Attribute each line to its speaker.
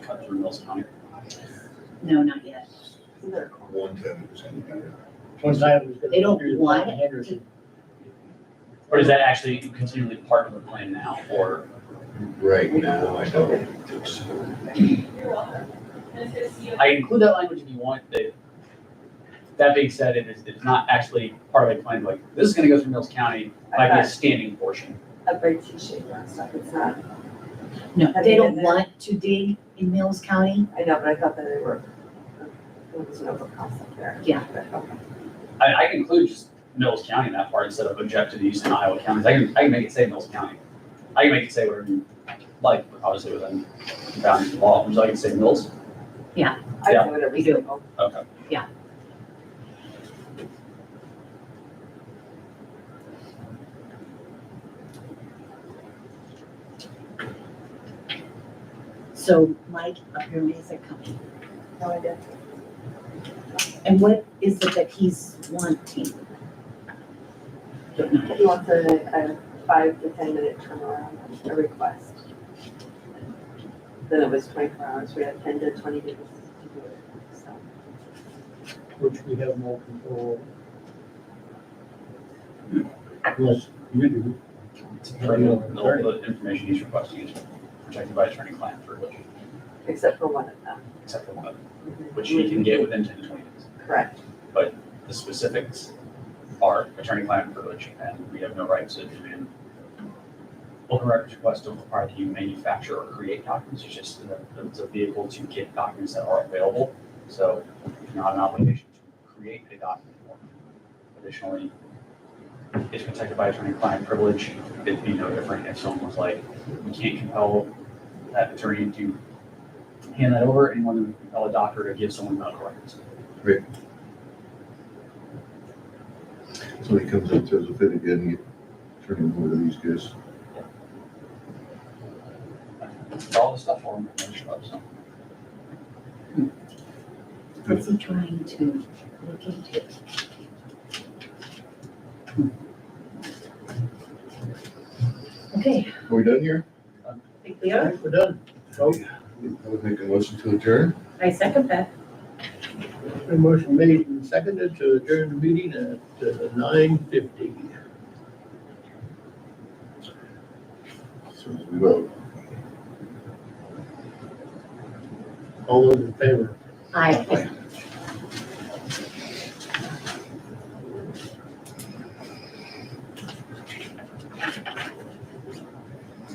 Speaker 1: cut through Mills County.
Speaker 2: No, not yet.
Speaker 3: One ten percent.
Speaker 4: One time it was gonna
Speaker 2: They don't
Speaker 4: do the
Speaker 2: want
Speaker 4: Brian Henderson.
Speaker 1: Or is that actually continually part of the plan now, or?
Speaker 3: Right now, I don't think so.
Speaker 1: I include that language if you want, Dave. That being said, it is, it's not actually part of a plan, like, this is gonna go through Mills County, might be a standing portion.
Speaker 5: a bridge issue and stuff, it's not,
Speaker 2: No,
Speaker 5: Have
Speaker 2: they
Speaker 5: you
Speaker 2: don't
Speaker 5: been there?
Speaker 2: want to dig in Mills County.
Speaker 5: I know, but I thought that they were, uh, it was an open concept there.
Speaker 2: Yeah.
Speaker 5: But, okay.
Speaker 1: I, I can include just Mills County in that part instead of object to the use in Iowa counties, I can, I can make it say Mills County. I can make it say whatever you like, obviously within bounds of law, so I can say Mills,
Speaker 5: I
Speaker 1: Yeah.
Speaker 5: would at
Speaker 2: We
Speaker 5: least.
Speaker 2: do.
Speaker 5: go,
Speaker 1: okay.
Speaker 2: So Mike, apparently is it coming.
Speaker 5: No idea.
Speaker 2: And what is it that he's wanting? Don't know.
Speaker 5: He wants a, a five to ten minute turnaround, a request. Then it was twenty-four hours, we had ten to twenty days to do it, so.
Speaker 4: which we have no control over. Unless you do.
Speaker 1: The, the information he's requesting is protected by attorney-client privilege,
Speaker 5: Except for one of them,
Speaker 1: except for one, which he can get within ten to twenty days.
Speaker 5: correct.
Speaker 1: The specifics are attorney-client privilege, and we have no rights to demand. Open records requests don't require that you manufacture or create documents, it's just that it's a vehicle to get documents that are available. So it's not an obligation to create a document. Additionally, it's protected by attorney-client privilege. It'd be no different if someone was like, we can't compel that attorney to hand that over, and when we compel a doctor to give someone medical records.
Speaker 3: Somebody comes up, throws a fit again, you turn him over to these guys.
Speaker 1: all the stuff on the finish up, so.
Speaker 2: What's he trying to look into? Hmm. Okay,
Speaker 3: Are we done here?
Speaker 2: I think we are.
Speaker 4: We're done. Oh,
Speaker 3: I would make a motion to adjourn.
Speaker 2: I second that.
Speaker 4: a motion made and seconded to adjourn the meeting at uh, nine fifty.
Speaker 3: So we vote.
Speaker 4: All those in favor?
Speaker 2: I,